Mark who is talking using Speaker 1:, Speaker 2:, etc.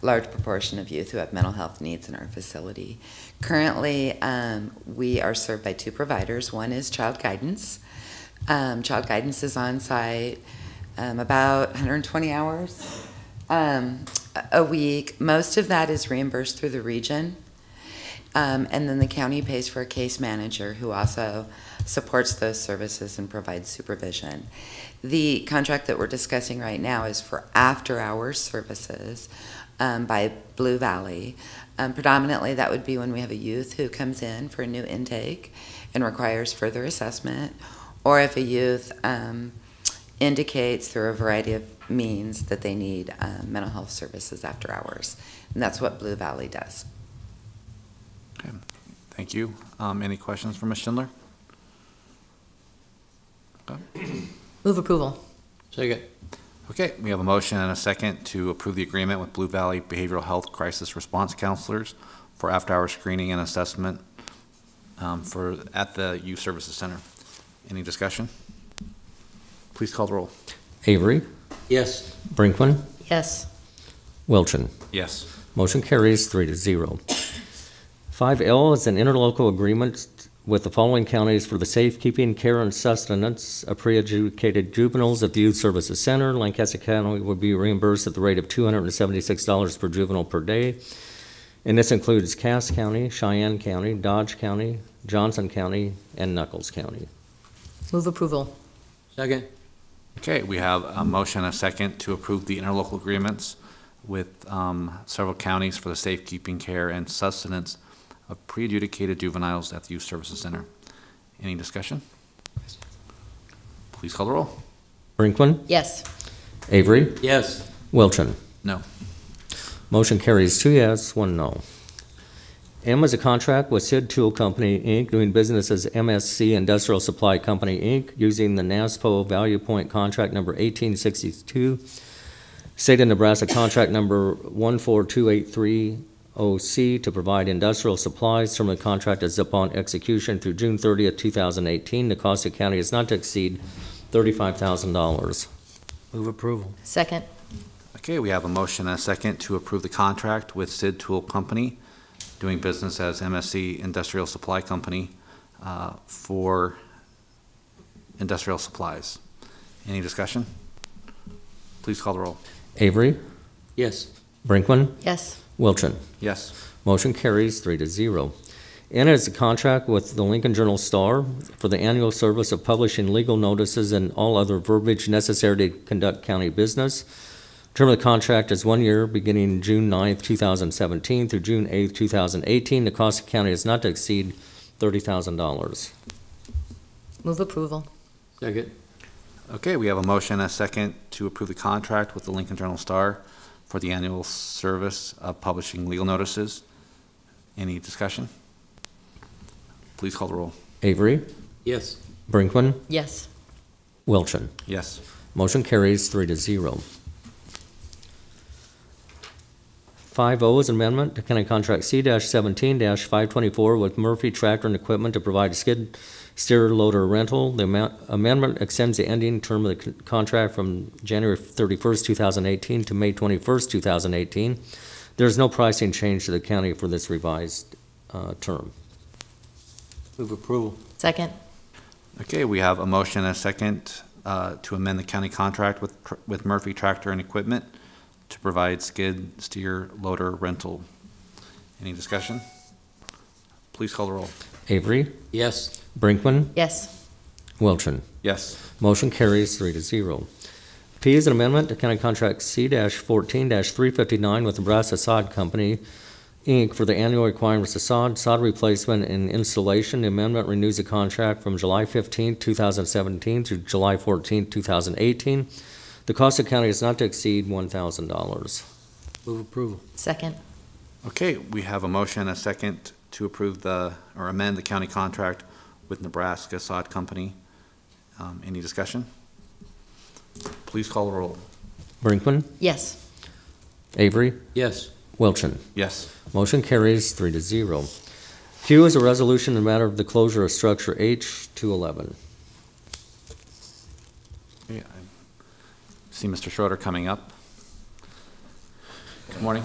Speaker 1: large proportion of youth who have mental health needs in our facility. Currently, um, we are served by two providers. One is Child Guidance. Um, Child Guidance is on site um, about 120 hours um, a- a week. Most of that is reimbursed through the region. Um, and then the county pays for a case manager who also supports those services and provides supervision. The contract that we're discussing right now is for after-hours services um, by Blue Valley. Um, predominantly, that would be when we have a youth who comes in for a new intake and requires further assessment, or if a youth um, indicates through a variety of means that they need um, mental health services after hours. And that's what Blue Valley does.
Speaker 2: Thank you. Um, Any questions for Ms. Schindler?
Speaker 3: Move approval.
Speaker 4: Second.
Speaker 2: Okay, we have a motion and a second to approve the agreement with Blue Valley Behavioral Health Crisis Response Counselors for after-hour screening and assessment um, for, at the Youth Services Center. Any discussion? Please call the roll.
Speaker 5: Avery,
Speaker 4: Yes.
Speaker 5: Brinkman,
Speaker 3: Yes.
Speaker 5: Wilchin.
Speaker 2: Yes.
Speaker 5: Motion carries three to zero. Five L is an interlocal agreement with the following counties for the safekeeping, care, and sustenance of pre-adjudicated juveniles at the Youth Services Center. Lancaster County will be reimbursed at the rate of two hundred and seventy-six dollars per juvenile per day. And this includes Cass County, Cheyenne County, Dodge County, Johnson County, and Knuckles County.
Speaker 3: Move approval.
Speaker 4: Second.
Speaker 2: Okay, we have a motion and a second to approve the interlocal agreements with um, several counties for the safekeeping, care, and sustenance of pre-adjudicated juveniles at the Youth Services Center. Any discussion? Please call the roll.
Speaker 5: Brinkman,
Speaker 3: Yes.
Speaker 5: Avery,
Speaker 4: Yes.
Speaker 5: Wilchin.
Speaker 2: No.
Speaker 5: Motion carries two yes, one no. M is a contract with Sid Tool Company, Inc., doing business as MSC Industrial Supply Company, Inc., using the NASPO Value Point Contract Number 1862, State of Nebraska Contract Number 142830C to provide industrial supplies. Term of the contract is upon execution through June 30th, 2018. The cost to county is not to exceed $35,000.
Speaker 4: Move approval.
Speaker 3: Second.
Speaker 2: Okay, we have a motion and a second to approve the contract with Sid Tool Company, doing business as MSC Industrial Supply Company, uh, for industrial supplies. Any discussion? Please call the roll.
Speaker 5: Avery,
Speaker 4: Yes.
Speaker 5: Brinkman,
Speaker 3: Yes.
Speaker 5: Wilchin.
Speaker 2: Yes.
Speaker 5: Motion carries three to zero. N is a contract with the Lincoln Journal Star for the annual service of publishing legal notices and all other verbiage necessary to conduct county business. Term of the contract is one year, beginning June 9th, 2017 through June 8th, 2018. The cost to county is not to exceed $30,000.
Speaker 3: Move approval.
Speaker 4: Second.
Speaker 2: Okay, we have a motion and a second to approve the contract with the Lincoln Journal Star for the annual service of publishing legal notices. Any discussion? Please call the roll.
Speaker 5: Avery,
Speaker 4: Yes.
Speaker 5: Brinkman,
Speaker 3: Yes.
Speaker 5: Wilchin.
Speaker 2: Yes.
Speaker 5: Motion carries three to zero. Five O is an amendment to County Contract C seventeen five twenty-four with Murphy Tractor and Equipment to provide skid steer loader rental. The amount- amendment extends the ending term of the con- contract from January thirty-first, two thousand eighteen to May twenty-first, two thousand eighteen. There's no pricing change to the county for this revised, uh, term.
Speaker 4: Move approval.
Speaker 3: Second.
Speaker 2: Okay, we have a motion and a second uh, to amend the county contract with tr- with Murphy Tractor and Equipment to provide skid steer loader rental. Any discussion? Please call the roll.
Speaker 5: Avery,
Speaker 4: Yes.
Speaker 5: Brinkman,
Speaker 3: Yes.
Speaker 5: Wilchin.
Speaker 2: Yes.
Speaker 5: Motion carries three to zero. P is an amendment to County Contract C fourteen three fifty-nine with Nebraska Sod Company, Inc. for the annual requirements of sod, sod replacement and installation. The amendment renews the contract from July fifteenth, two thousand seventeen through July fourteenth, two thousand eighteen. The cost of county is not to exceed one thousand dollars.
Speaker 4: Move approval.
Speaker 3: Second.
Speaker 2: Okay, we have a motion and a second to approve the, or amend the county contract with Nebraska Sod Company. Um, Any discussion? Please call the roll.
Speaker 5: Brinkman,
Speaker 3: Yes.
Speaker 5: Avery,
Speaker 4: Yes.
Speaker 5: Wilchin.
Speaker 2: Yes.
Speaker 5: Motion carries three to zero. Q is a resolution in the matter of the closure of structure H two eleven.
Speaker 2: Yeah, I See Mr. Schroeder coming up. Good morning.